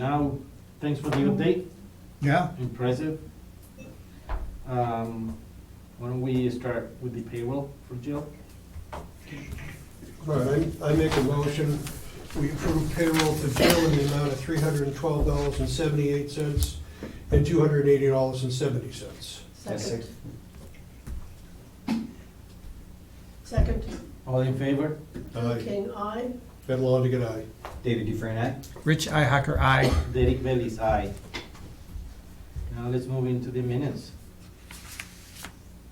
Now, thanks for the update, Yeah, impressive. Um, Why don't we start with the payroll for Jill? All right, I I make a motion, we approve payroll to Jill in the amount of three hundred and twelve dollars and seventy-eight cents and two hundred and eighty dollars and seventy cents. Second. Second, All in favor? King, I. Ed Longigan, aye. David Dufresne, aye. Rich Ihacker, I. Derek Bailey's aye. Now let's move into the minutes.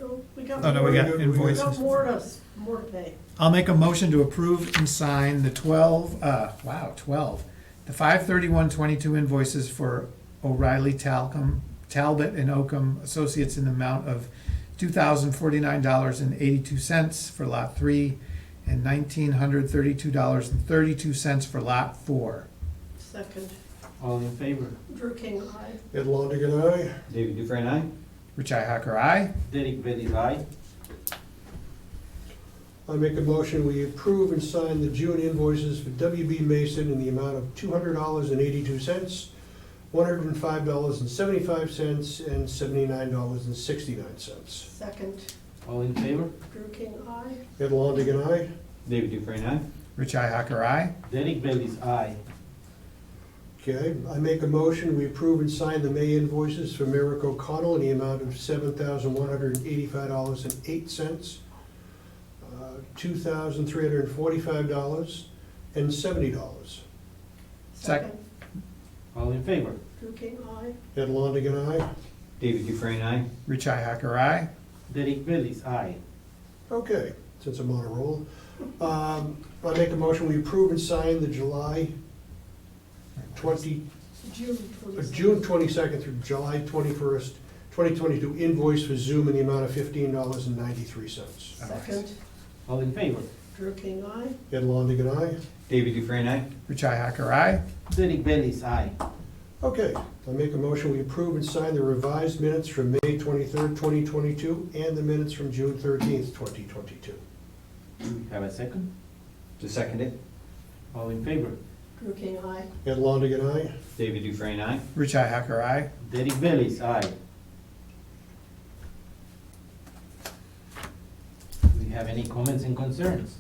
Oh, We got. Oh, no, we got more- We got invoices. more to, s- more to pay. I'll make a motion to approve and sign the twelve, uh, wow, twelve, the five thirty-one twenty-two invoices for O'Reilly Talcum, Talbot and Oakham Associates in the amount of two thousand forty-nine dollars and eighty-two cents for lot three and nineteen hundred thirty-two dollars and thirty-two cents for lot four. Second, All in favor? Drew King, I. Ed Longigan, aye. David Dufresne, aye. Rich Ihacker, I. Derek Bailey's aye. I make a motion, we approve and sign the June invoices for WB Mason in the amount of two hundred dollars and eighty-two cents, one hundred and five dollars and seventy-five cents, and seventy-nine dollars and sixty-nine cents. Second, All in favor? Drew King, I. Ed Longigan, aye. David Dufresne, aye. Rich Ihacker, I. Derek Bailey's aye. Okay, I make a motion, we approve and sign the May invoices for Merrick O'Connell in the amount of seven thousand one hundred and eighty-five dollars and eight cents, uh, two thousand three hundred and forty-five dollars and seventy dollars. Sec- Second, All in favor? Drew King, I. Ed Longigan, aye. David Dufresne, aye. Rich Ihacker, I. Derek Bailey's aye. Okay, since I'm on a roll, um, I make a motion, we approve and sign the July twenty, June uh, twenty-second. June twenty-second through July twenty-first, twenty twenty-two invoice for Zoom in the amount of fifteen dollars and ninety-three oh, cents. Second, All in favor? Drew King, I. Ed Longigan, aye. David Dufresne, aye. Rich Ihacker, I. Derek Bailey's aye. Okay, I make a motion, we approve and sign the revised minutes from May twenty-third, twenty twenty-two, and the minutes from June thirteenth, twenty twenty-two. Do we have a second? To second it. All in favor? Drew King, I. Ed Longigan, aye. David Dufresne, aye. Rich Ihacker, I. Derek Bailey's aye. Do we have any comments and concerns?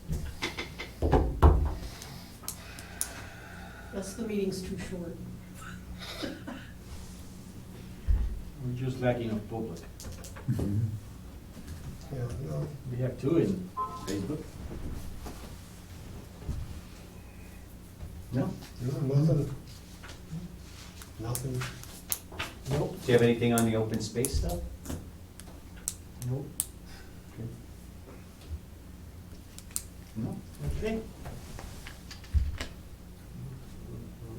That's the meeting's too short. We're just lacking of public. Yeah, no, We have two in Facebook. No? no, nothing. Nothing. Nope. Do you have anything on the open space stuff? Nope. No. Okay.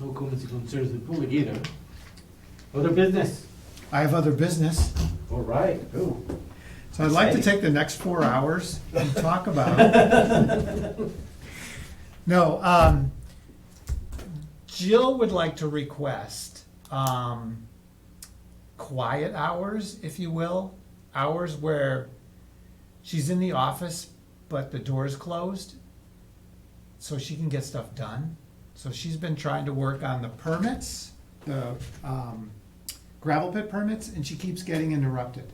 No comments and concerns with public either. Other business? I have other business. All right. Oh. So I'd like to Exciting. take the next four hours and talk about. No, um, Jill would like to request, um, quiet hours, if you will. Hours where she's in the office, but the door is closed, so she can get stuff done. So she's been trying to work on the permits, the, um, gravel pit permits, and she keeps getting interrupted.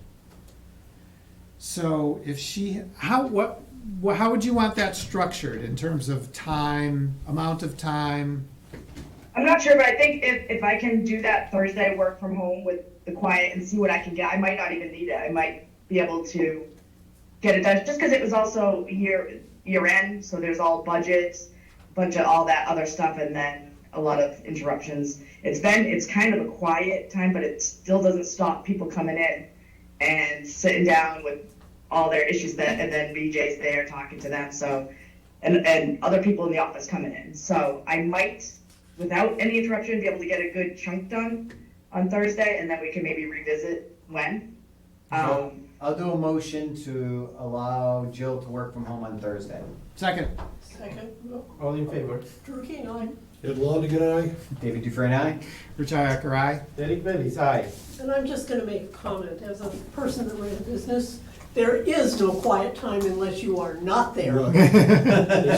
So if she, how, what, wha- how would you want that structured in terms of time, amount of time? I'm not sure, but I think if, if I can do that Thursday work from home with the quiet and see what I can get, I might not even need it. I might be able to get it done just because it was also year year end, so there's all budgets, bunch of all that other stuff, and then a lot of interruptions. It's been it's kind of a quiet time, but it still doesn't stop people coming in and sitting down with all their issues that, and then BJ's there talking to them. So, and and other people in the office coming in. So I might without any interruption, be able to get a good chunk done on Thursday, and then we can maybe revisit when. Um, I'll do a motion to allow Jill to work from home on Thursday. Second, Second, no, All in favor? Drew King, I. Ed Longigan, aye. David Dufresne, aye. Rich Ihacker, aye. Derek Bailey's aye. And I'm just gonna make a comment, as a person that ran a business, there is no quiet time unless you are not there.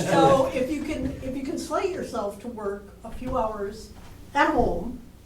So if you can, if you can slate yourself to work a few hours at home